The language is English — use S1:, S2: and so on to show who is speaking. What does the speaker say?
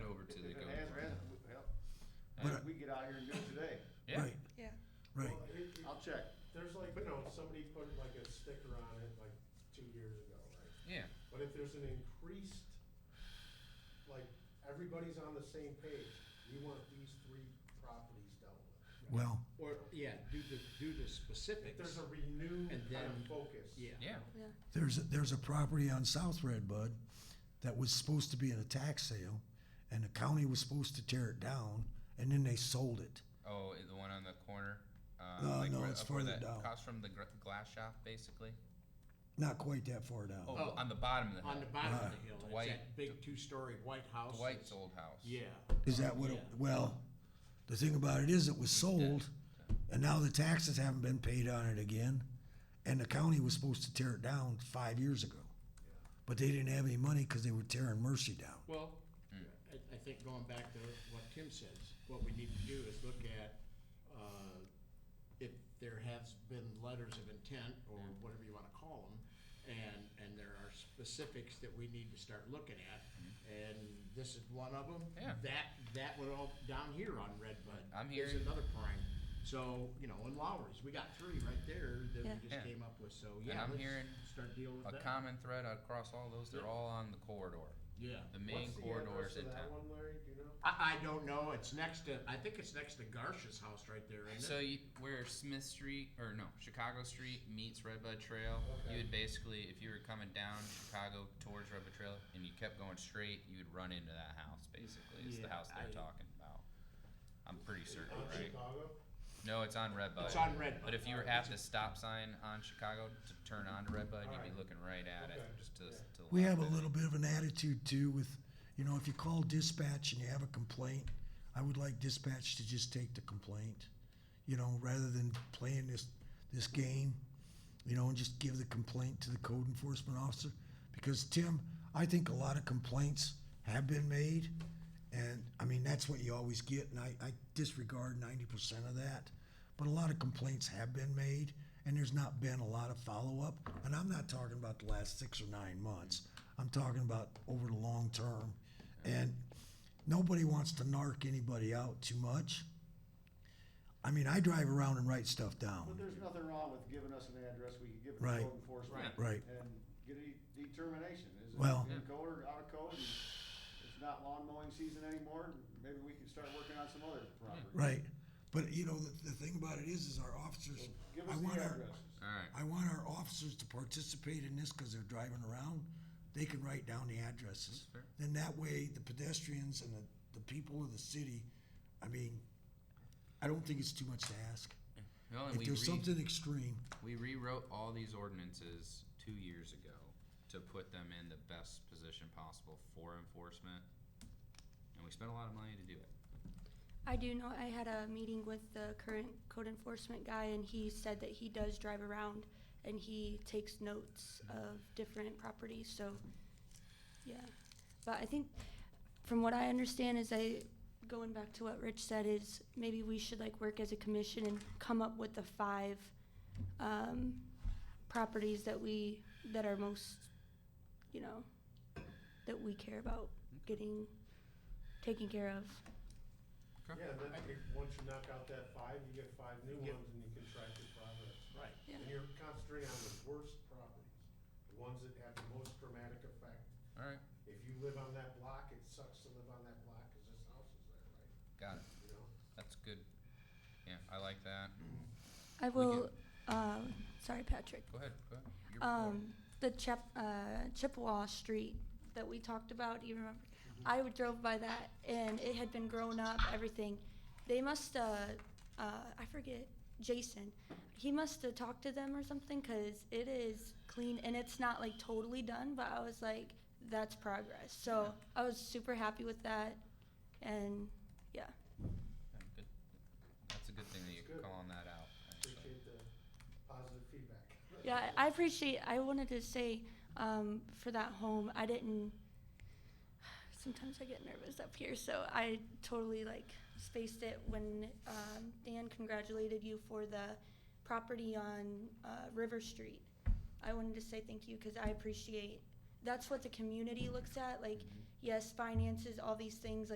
S1: But,
S2: we get out here and do it today.
S3: Yeah.
S1: Right,
S4: Yeah.
S1: right.
S5: Well, it- it-
S2: I'll check.
S5: There's like, you know, somebody put like a sticker on it like two years ago, right?
S3: Yeah.
S5: But if there's an increased, like, everybody's on the same page, we want these three properties dealt with.
S1: Well,
S6: Or, yeah, do the, do the specifics.
S5: If there's a renewed
S6: And
S5: kind
S6: then-
S5: of focus.
S6: Yeah.
S3: Yeah.
S1: there's, there's a property on South Red Bud that was supposed to be in a tax sale, and the county was supposed to tear it down, and then they sold it.
S3: Oh, i- the one on the corner. Uh,
S1: No,
S3: like
S1: no,
S3: where,
S1: it's
S3: up where
S1: further
S3: that
S1: down.
S3: Across from the gr- glass shop, basically.
S1: Not quite that far
S3: Oh,
S1: down.
S6: Oh.
S3: on the bottom of the hill.
S6: On the bottom of the hill, it's
S3: Dwight-
S6: that big two-story white house.
S3: Dwight's
S6: that's-
S3: old house.
S6: Yeah.
S1: Is that what, it- well, the thing about it is, it was sold, and now the taxes haven't been paid on it again, and the county was supposed to tear it down five years ago. But they didn't have any money because they were tearing Mercy down.
S6: Well,
S3: Hmm.
S6: I, I think going back to what Tim says, what we need to do is look at, uh, if there has been letters of intent, or
S3: Hmm.
S6: whatever you wanna call them, and, and there are specifics that we need to start looking at, and this is one of them.
S3: Hmm. Yeah.
S6: That, that would all, down here on Redbud.
S3: I'm
S6: Is
S3: hearing-
S6: another prime, so, you know, in Lowry's, we got three right there that
S4: Yeah.
S6: we
S3: Yeah.
S6: just came up with, so, yeah,
S3: I'm
S6: let's
S3: hearing
S6: start dealing
S3: A
S6: with that.
S3: common thread across all those. They're
S6: Yeah.
S3: all on the corridor.
S6: Yeah.
S3: The main
S5: What's the
S3: corridors
S5: address of
S3: in
S5: that
S3: town.
S5: one, Larry, do you know?
S6: I, I don't know. It's next to. I think it's next to Garsha's house right there, isn't
S3: So
S6: it?
S3: you, where Smith Street or no Chicago Street meets Redbud Trail, you would basically, if you were coming down Chicago towards Redbud Trail and you kept going straight, you would run into that house. Basically, it's the
S6: Yeah,
S3: house they're
S6: I-
S3: talking about. I'm pretty certain,
S5: On
S3: right?
S5: Chicago?
S3: No, it's on Redbud.
S6: It's on Redbud.
S3: But if you were at the stop sign on Chicago to turn onto Redbud, you'd be
S5: Alright.
S3: looking right at it,
S5: Okay.
S3: just to,
S5: Yeah.
S3: to. the
S1: We
S3: left
S1: have a
S3: of it.
S1: little bit of an attitude too with, you know, if you call dispatch and you have a complaint, I would like dispatch to just take the complaint, you know, rather than playing this, this game, you know, and just give the complaint to the code enforcement officer. Because Tim, I think a lot of complaints have been made and, I mean, that's what you always get and I, I disregard ninety percent of that. But a lot of complaints have been made, and there's not been a lot of follow-up. And I'm not talking about the last six or nine months. I'm talking about over the long term. And nobody wants to narc anybody out too much. I mean, I drive around and write stuff
S2: But
S1: down.
S2: there's nothing wrong with giving us an address, we can give it to
S1: Right.
S2: code enforcement.
S1: Right.
S2: And get a determination, is it
S1: Well-
S2: in code or out of code, and it's not lawn mowing season anymore, maybe we can start working on some other property.
S1: Right. But you know, the, the thing about it is, is our officers,
S2: Give
S1: I
S2: us
S1: want
S2: the
S1: our,
S2: addresses.
S3: Alright,
S1: I want our officers to participate in this because they're driving around. They can write down the addresses.
S3: fair.
S1: Then that way, the pedestrians and the, the people of the city, I mean, I don't think it's too much to ask.
S3: well, and
S1: If
S3: we
S1: there's
S3: re-
S1: something extreme,
S3: we rewrote all these ordinances two years ago to put them in the best position possible for enforcement. And we spent a lot of money to do it.
S4: I do know, I had a meeting with the current code enforcement guy, and he said that he does drive around and he takes notes of different properties, so, yeah. But I think, from what I understand is I, going back to what Rich said, is maybe we should like work as a commission and come up with the five, um, properties that we, that are most, you know, that we care about getting, taken care of.
S3: Okay.
S5: Yeah, and then you- once you knock out that five, you get five new ones and you can track your progress.
S6: Right.
S4: Yeah.
S5: And you're concentrating on the worst properties, the ones that have the most dramatic effect.
S3: Alright,
S5: If you live on that block, it sucks to live on that block because this house is there, right?
S3: got it.
S5: You know?
S3: That's good. Yeah, I like that.
S4: I
S3: We
S4: will. Uh, sorry, Patrick.
S3: Go ahead, go ahead. Your report.
S4: Um, the Chep, uh, Chippewa Street that we talked about. Do you remember? I would drove by that, and it had been grown up. Everything. They must. Uh, uh, I forget. Jason. He must have talked to them or something, cause it is clean and it's not like totally done. But I was like, that's progress. So I was super happy with that, and yeah.
S3: Yeah, good. That's a good thing that you're
S5: Good.
S3: calling that out. actually.
S5: Appreciate the positive feedback.
S4: Yeah, I I appreciate, I wanted to say, um, for that home, I didn't, sometimes I get nervous up here, so I totally like spaced it when, um, Dan congratulated you for the property on, uh, River Street. I wanted to say thank you, cause I appreciate, that's what the community looks at, like, yes, finances, all these things,